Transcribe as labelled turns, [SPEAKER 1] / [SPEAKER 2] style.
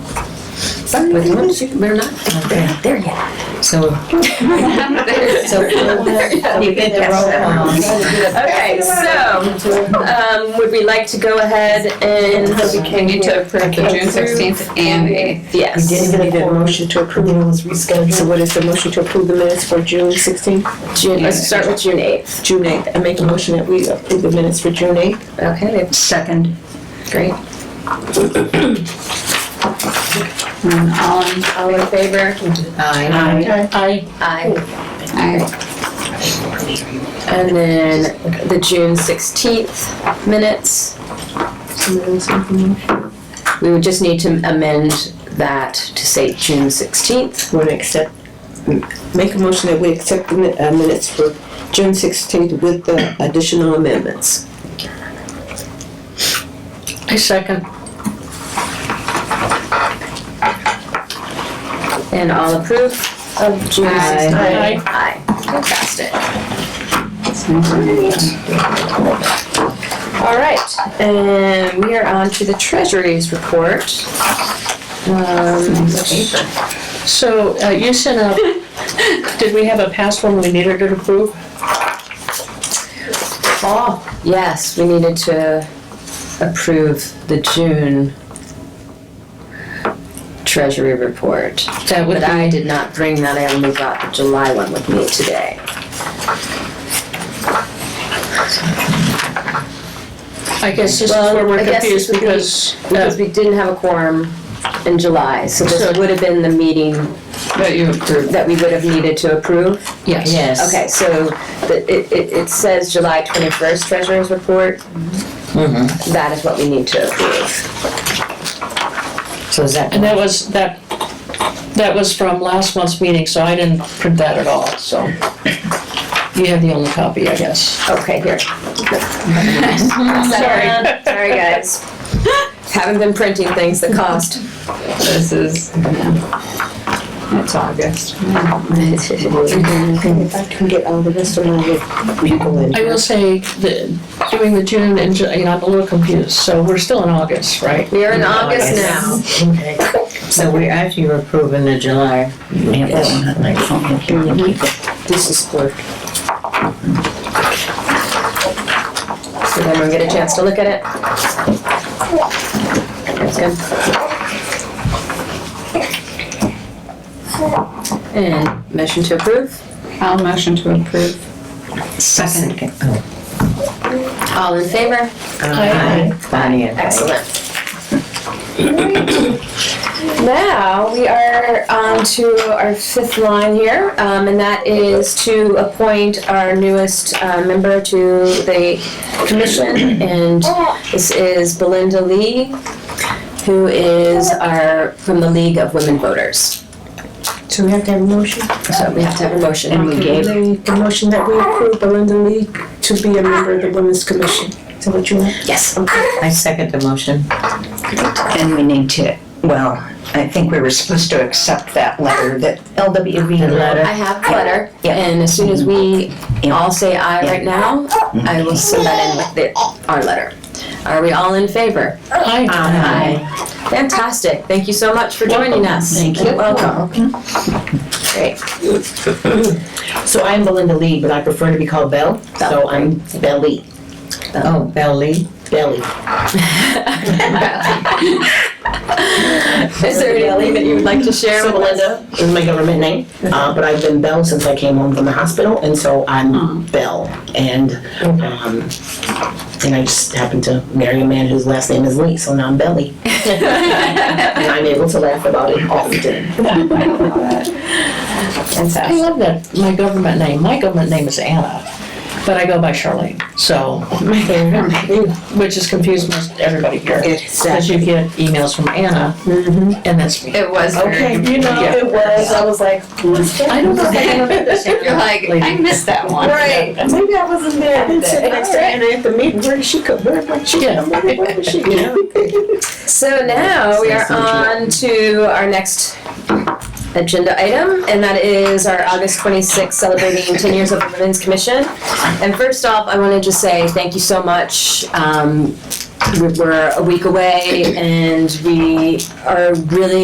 [SPEAKER 1] Wait, we're- We're not, we're not there yet. So, so we'll we'll get the roll call.
[SPEAKER 2] Okay, so, um, would we like to go ahead and continue to approve the June sixteenth and eighth?
[SPEAKER 3] We
[SPEAKER 2] Yes.
[SPEAKER 3] didn't get a motion to approve the minutes rescheduled. So what is the motion to approve the minutes for June sixteenth?
[SPEAKER 2] June, let's start with June eighth.
[SPEAKER 3] June eighth. I make a motion that we approve the eh? minutes for June eighth.
[SPEAKER 2] Okay, we have-
[SPEAKER 1] Second.
[SPEAKER 2] great. And All, in- all in favor?
[SPEAKER 1] Aye.
[SPEAKER 2] Aye. Aye. And then the June sixteenth minutes, we would just need to amend that to say June sixteenth.
[SPEAKER 3] We're gonna accept, make a motion that we accept the mi- uh, minutes for June sixteenth with the additional amendments.
[SPEAKER 1] I second.
[SPEAKER 2] And all approve of June 16th?
[SPEAKER 1] Aye.
[SPEAKER 2] Aye. Fantastic. All right, and we are on to the Treasury's report. Um,
[SPEAKER 4] So uh, you sent a, did we have a past one we needed to approve?
[SPEAKER 2] Yes, we needed to approve the June Treasury report.
[SPEAKER 4] That would
[SPEAKER 2] But I did not bring that, I only got the July one with me today.
[SPEAKER 4] I guess just
[SPEAKER 2] Well,
[SPEAKER 4] where
[SPEAKER 2] I
[SPEAKER 4] we're
[SPEAKER 2] guess
[SPEAKER 4] confused
[SPEAKER 2] it would be-
[SPEAKER 4] because,
[SPEAKER 2] Because
[SPEAKER 1] Oh.
[SPEAKER 4] uh,
[SPEAKER 2] we didn't have a quorum in July, so
[SPEAKER 4] So-
[SPEAKER 2] this would have been the meeting
[SPEAKER 4] that you approved.
[SPEAKER 2] that we would have needed to approve.
[SPEAKER 4] Yes.
[SPEAKER 1] Yes.
[SPEAKER 2] Okay, so the- it, it, it says July 21st treasurer's report. That is what we need to approve.
[SPEAKER 1] So is that,
[SPEAKER 4] And that was, that, that was from last month's meeting, so I didn't print that at all, so. You have the only copy, I guess.
[SPEAKER 2] Okay, here. Sorry. Sorry, guys. Haven't been printing things that cost.
[SPEAKER 4] This is. That's August.
[SPEAKER 3] If I can get all the rest of my people in.
[SPEAKER 4] I will say that doing the June and, Ju- you know, I'm a little confused, so we're still in August, right?
[SPEAKER 2] We are in August now.
[SPEAKER 1] okay. So we actually were approving the July. Yeah, that one had my phone here.
[SPEAKER 3] Mm-hmm. This is clerk.
[SPEAKER 2] So then we'll get a chance to look at it. That's good. And motion to approve?
[SPEAKER 4] I'll motion to approve.
[SPEAKER 1] Second.
[SPEAKER 2] All in favor?
[SPEAKER 1] Aye. Bonnie and I.
[SPEAKER 2] Excellent. Now, we are on to our fifth line here, um, and that is to appoint our newest uh, member to the commission. And this is Belinda Lee, who is our, from the League of Women Voters.
[SPEAKER 3] So we have to have a motion?
[SPEAKER 2] So we have to have a motion.
[SPEAKER 1] And we gave,
[SPEAKER 3] Make a motion that we approve Belinda Lee to be a member of the Women's Commission. Is that what you want?
[SPEAKER 2] Yes.
[SPEAKER 1] I second the motion.
[SPEAKER 5] And we need to, well, I think we were supposed to accept that letter that LWV.
[SPEAKER 1] The letter.
[SPEAKER 2] I have the letter,
[SPEAKER 5] Yeah.
[SPEAKER 2] and as soon as we
[SPEAKER 5] Yeah.
[SPEAKER 2] all say aye right now, I will send that in with the, our letter. Are we all in favor?
[SPEAKER 4] Aye.
[SPEAKER 2] Uh-huh. Aye. Fantastic, thank you so much for joining us.
[SPEAKER 1] Thank you.
[SPEAKER 2] You're Welcome. Great,
[SPEAKER 6] So I'm Belinda Lee, but I prefer to be called Belle. So I'm Belly,
[SPEAKER 1] Oh, Bell Lee.
[SPEAKER 6] Belly.
[SPEAKER 2] is there anything that you would like to share
[SPEAKER 6] So
[SPEAKER 2] with us?
[SPEAKER 6] Belinda is my government name, uh, but I've been Belle since I came home from the hospital, and so I'm Belle. And um, and I just happened to marry a man whose last name is Lee, so now I'm Belly. and I'm able to laugh about it often.
[SPEAKER 4] I love that, my government name, my government name is Anna, but I go by Charlene, so, which has confused most everybody here. Because you get emails from Anna, and that's me.
[SPEAKER 2] It was very.
[SPEAKER 6] you know,
[SPEAKER 4] it
[SPEAKER 6] was. I was like, what's that?
[SPEAKER 4] I don't know if I remember this.
[SPEAKER 2] You're like, I missed that one. Right.
[SPEAKER 3] Maybe I wasn't there. I didn't sit next to Anna at the meeting. Where did she come? Where did she
[SPEAKER 4] Yeah.
[SPEAKER 3] come? Where where was she?
[SPEAKER 2] So now we are
[SPEAKER 6] Say something.
[SPEAKER 2] on to our next agenda item, and that is our August 26th celebrating 10 years of the Women's Commission. And first off, I want to just say thank you so much. Um, we- We're a week away, and we are really